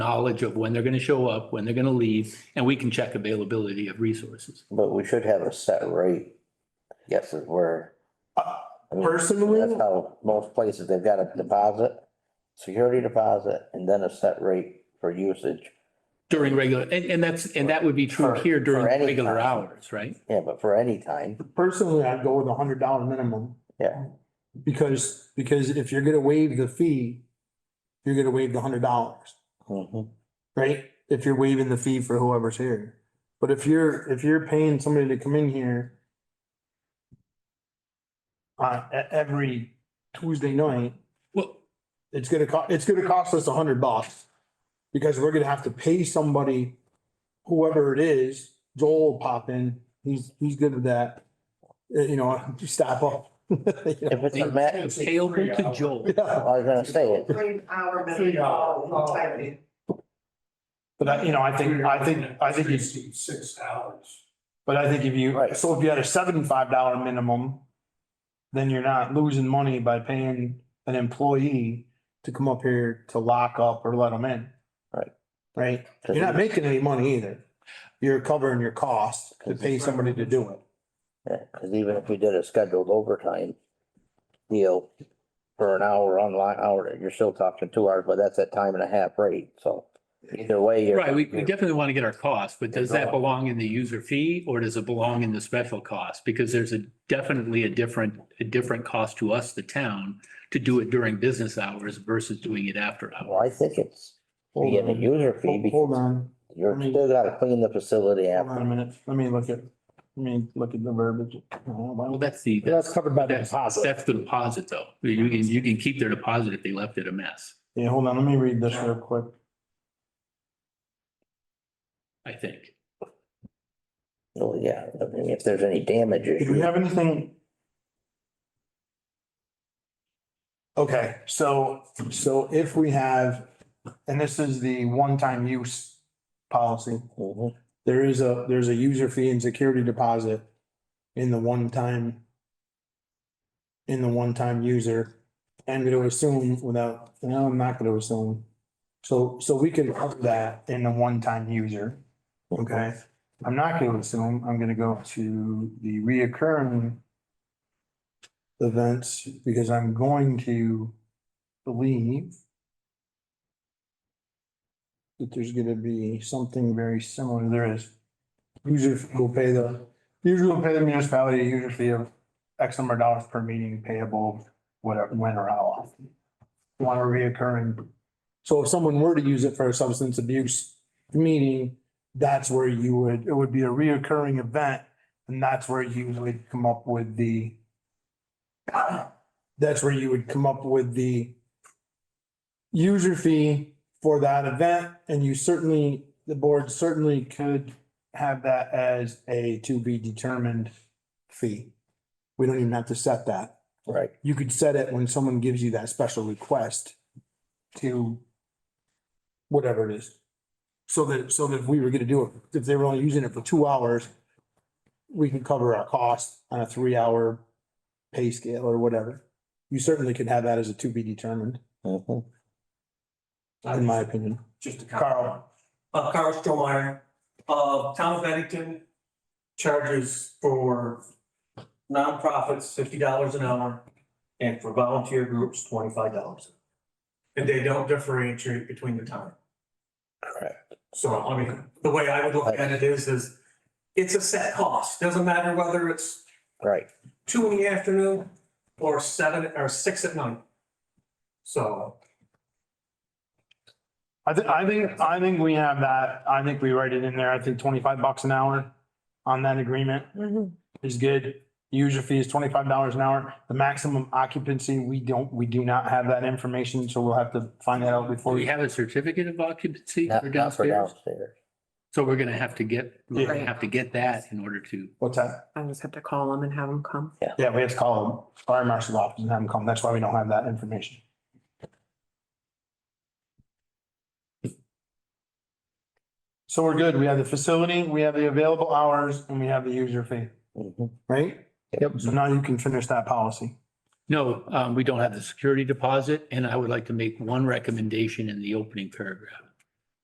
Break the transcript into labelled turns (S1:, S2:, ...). S1: knowledge of when they're going to show up, when they're going to leave, and we can check availability of resources.
S2: But we should have a set rate. Yes, it were.
S3: Uh,
S2: I mean,
S3: personally-
S2: That's how most places, they've got a deposit, security deposit, and then a set rate for usage.
S1: During regular, and, and that's, and that would be true
S2: For-
S1: here during
S2: for any
S1: regular
S2: time.
S1: hours, right?
S2: Yeah, but for any time,
S3: Personally, I'd go with a hundred dollar minimum.
S2: Yeah.
S3: Because, because if you're gonna waive the fee, you're gonna waive the hundred dollars,
S1: Mm-hmm.
S2: Mhm.
S3: right? If you're waiving the fee for whoever's here. But if you're, if you're paying somebody to come in here uh, e- every Tuesday night,
S1: Well,
S3: it's gonna co- it's gonna cost us a hundred bucks. Because we're gonna have to pay somebody, whoever it is, Joel will pop in, he's, he's good with that. Uh, You know, stop up. Yeah.
S2: if it's a match,
S1: it's payable to Joel.
S2: I was gonna say it.
S4: Three hour
S5: Three
S4: minimum.
S5: hour.
S4: type in.
S3: But I, you know, I think, I think, I think it's,
S5: Six hours.
S3: but I think if you,
S2: Right.
S3: so if you had a seventy-five dollar minimum, then you're not losing money by paying an employee to come up here to lock up or let them in.
S2: Right.
S3: Right? You're not making any money either. You're covering your costs to pay somebody to do it.
S2: Yeah, cause even if we did a scheduled overtime deal for an hour online hour, you're still talking two hours, but that's at time and a half rate, so either way. you're-
S1: Right, we we
S2: you're-
S1: definitely want to get our costs, but does that belong in the user fee or does it belong in the special cost? Because there's a definitely a different, a different cost to us, the town, to do it during business hours versus doing it after hours.
S2: Well, I think it's, we get a user fee
S3: Hold hold
S2: because
S3: on,
S2: you're still gotta clean the facility
S3: hold on a
S2: after.
S3: minute. Let me look at, let me look at the verbiage.
S1: Well, that's the,
S6: That's covered by the
S1: that's,
S6: deposit.
S1: that's the deposit though. You can, you can keep their deposit if they left it a mess,
S3: Yeah, hold on, let me read this real quick.
S1: I think.
S2: Well, Oh, yeah, I mean, if there's any damages.
S3: Do we have anything? Okay, so, so if we have, and this is the one-time use policy,
S2: Mhm.
S3: there is a, there's a user fee and security deposit in the one-time in the one-time user. I'm gonna assume without, no, I'm not gonna assume. So, so we could up that in the one-time user. Okay, I'm not gonna assume, I'm gonna go to the reoccurring events because I'm going to believe that there's gonna be something very similar, there is. User fee will pay the, usually will pay the municipality a user fee of X number of dollars per meeting payable, whatever, when or how often. Want a reoccurring. So if someone were to use it for a substance abuse meeting, that's where you would, it would be a reoccurring event. And that's where you would come up with the, that's where you would come up with the user fee for that event. And you certainly, the board certainly could have that as a to be determined fee. We don't even have to set that.
S2: Right,
S3: You could set it when someone gives you that special request to whatever it is. So that, so that if we were gonna do it, if they were only using it for two hours, we can cover our cost on a three hour pay scale or whatever. You certainly could have that as a to be determined,
S2: Mhm.
S3: in my opinion.
S5: Just a
S3: Carl.
S5: Carl. Uh, Carl Strohmeyer, uh, town of Bennington charges for nonprofits fifty dollars an hour and for volunteer groups twenty-five dollars. And they don't differentiate between the time.
S2: correct.
S5: So, I mean, the way I would look at it is, is it's a set cost. Doesn't matter whether it's
S2: Right,
S5: two in the afternoon or seven or six at night. So.
S3: I think, I think, I think we have that. I think we write it in there. I think twenty-five bucks an hour on that agreement is good. User fee is twenty-five dollars an hour. The maximum occupancy, we don't, we do not have that information, so we'll have to find that out
S1: Do
S3: before.
S1: we
S3: we-
S1: have a certificate of occupancy
S2: not,
S1: for
S2: not for
S1: downstairs?
S2: downstairs.
S1: So we're gonna have to get, we're gonna
S4: Yeah.
S1: have to get that in order to,
S3: What's that?
S4: I just have to call them and have them come.
S3: Yeah, we have to call them, fire marshal's office and have them come. That's why we don't have that information. So we're good. We have the facility, we have the available hours, and we have the user fee,
S2: Mhm.
S3: right?
S2: Yep.
S3: So now you can finish that policy.
S1: no, um, we don't have the security deposit. And I would like to make one recommendation in the opening paragraph.